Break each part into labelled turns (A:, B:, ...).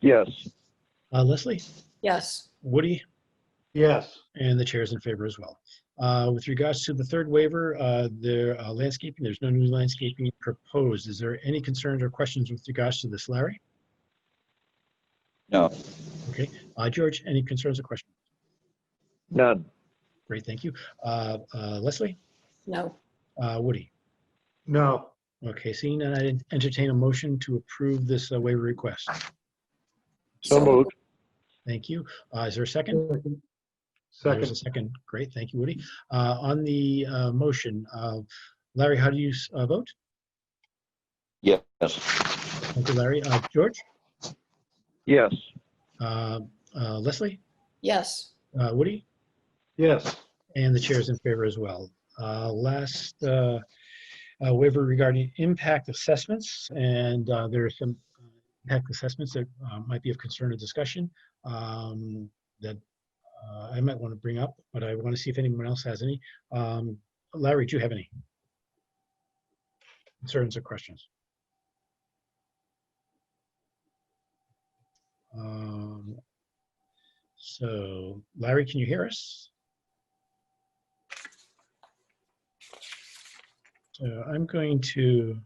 A: Yes.
B: Uh, Leslie,
C: Yes.
B: Woody,
D: Yes.
B: and the chair is in favor as well. Uh, With regards to the third waiver, uh, the uh, landscaping, there's no new landscaping proposed. Is there any concerns or questions with regards to this, Larry?
A: No.
B: Okay, Uh, George, any concerns or questions?
A: None.
B: Great, thank you. Uh, uh, Leslie,
C: No.
B: Uh, Woody?
D: No.
B: Okay, seeing none, I entertain a motion to approve this uh, waiver request.
A: So moved.
B: Thank you. Uh, Is there a second? There's a
D: Second.
B: second. Great, thank you, Woody. Uh, On the uh, motion, uh, Larry, how do you s- uh, vote?
A: Yes.
B: Thank you, Larry. Uh, George?
A: Yes.
B: Uh, uh, Leslie?
C: Yes.
B: Uh, Woody?
D: Yes.
B: And the chair is in favor as well. Uh, Last uh, uh, waiver regarding impact assessments, and uh, there are some uh, impact assessments that uh, might be of concern or discussion um, that uh, I might want to bring up, but I want to see if anyone else has any. Um, Larry, do you have any concerns or questions? Um, So Larry, can you hear us? So Uh, I'm going to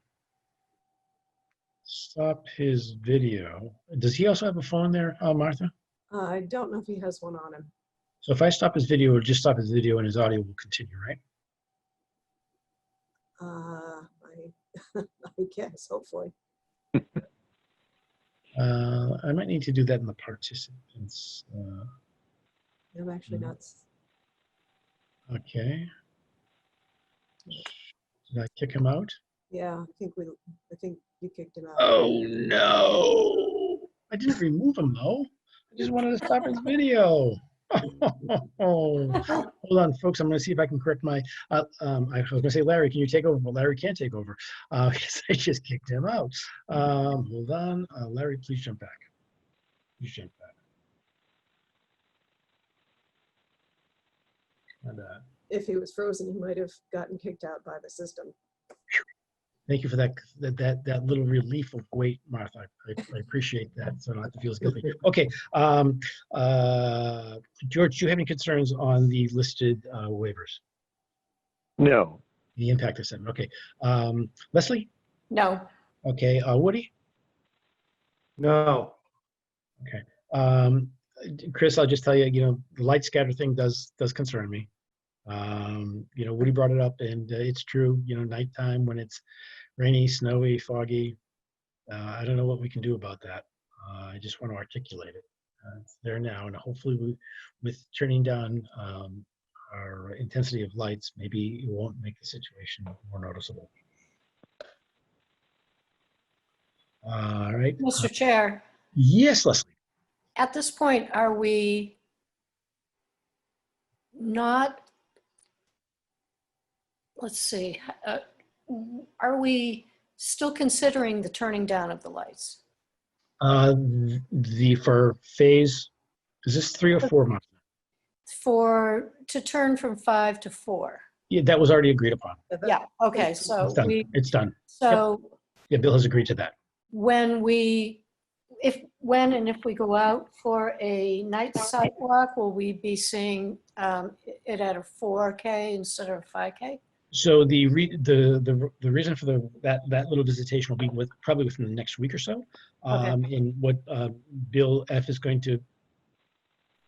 B: stop his video. Does he also have a phone there, uh, Martha?
E: Uh, I don't know if he has one on him.
B: So if I stop his video, it'll just stop his video and his audio will continue, right?
E: Uh, I, I guess, hopefully.
B: Uh, I might need to do that in the participants. Uh,
E: I'm actually
B: Mm.
E: not. s-
B: okay. Did I kick him out?
E: Yeah, I think we, I think you kicked him out.
B: Oh no! I didn't remove him though. I just wanted to stop his video. Hold on, folks. I'm going to see if I can correct my. Uh, um, I was going to say, Larry, can you take over? But Larry can't take over uh, because I just kicked him out. Um, hold on, uh, Larry. Please jump back. Please jump back. And, uh,
E: If he was frozen, he might have gotten kicked out by the system.
B: Thank you for that, that, that, that little relief of weight, Martha. I, I- I appreciate that, so I don't have to feel as guilty. Okay, um, uh, George, do you have any concerns on the listed, uh, waivers?
A: No.
B: The impact assessment, okay. Um, Leslie?
C: No.
B: Okay, uh, Woody?
D: No.
B: Um, Chris, I'll just tell you, you know, the light scatter thing does, does concern me. Um, you know, Woody brought it up and uh, it's true, you know, nighttime when it's rainy, snowy, foggy. Uh, I don't know what we can do about that. Uh, I just want to articulate it. Uh, it's there now and hopefully we, with turning down, um, our intensity of lights, maybe it won't make the situation more noticeable. All right.
C: Mr. Chair,
B: Yes, Leslie.
C: at this point, are we not, let's see, uh, are we still considering the turning down of the lights?
B: Uh, the, for phase, is this three or four months?
C: For, to turn from five to four?
B: Yeah, that was already agreed upon.
E: But that-
C: Yeah, okay, so
B: It's done.
C: we,
B: It's done.
C: so
B: Yeah, Bill has agreed to that.
C: when we, if, when and if we go out for a night sidewalk, will we be seeing um, it at a 4K instead of 5K?
B: So the re, the, the, the reason for the, that, that little visitation will be with, probably within the next week or so.
C: Okay.
B: Um, and what, uh, Bill F is going to,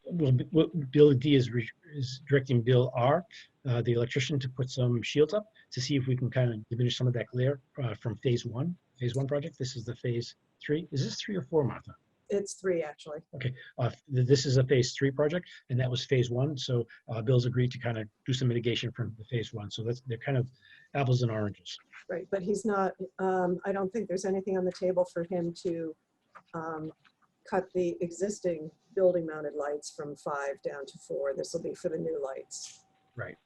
B: well, B- what Bill D is, re- is directing Bill R, uh, the electrician to put some shields up to see if we can kind of diminish some of that glare, uh, from phase one, phase one project. This is the phase three. Is this three or four, Martha?
E: It's three, actually.
B: Uh, th- This is a phase three project, and that was phase one. So uh, Bill's agreed to kind of do some mitigation from the phase one. So that's, they're kind of apples and oranges.
E: Right, but he's not, um, I don't think there's anything on the table for him to, um, cut the existing building mounted lights from five down to four. This will be for the new lights.
B: Right.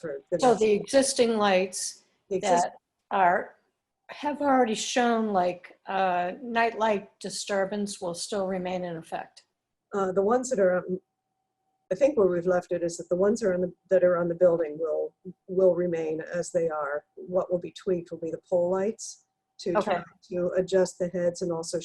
E: For the.
C: So
E: next-
C: the existing lights
E: the exist-
C: that are, have already shown like uh, nightlight disturbance will still remain in effect.
E: Uh, the ones that are, um, I think where we've left it is that the ones that are on the, that are on the building will, will remain as they are. What will be tweaked will be the pole lights to try
C: Okay.
E: to adjust the heads and also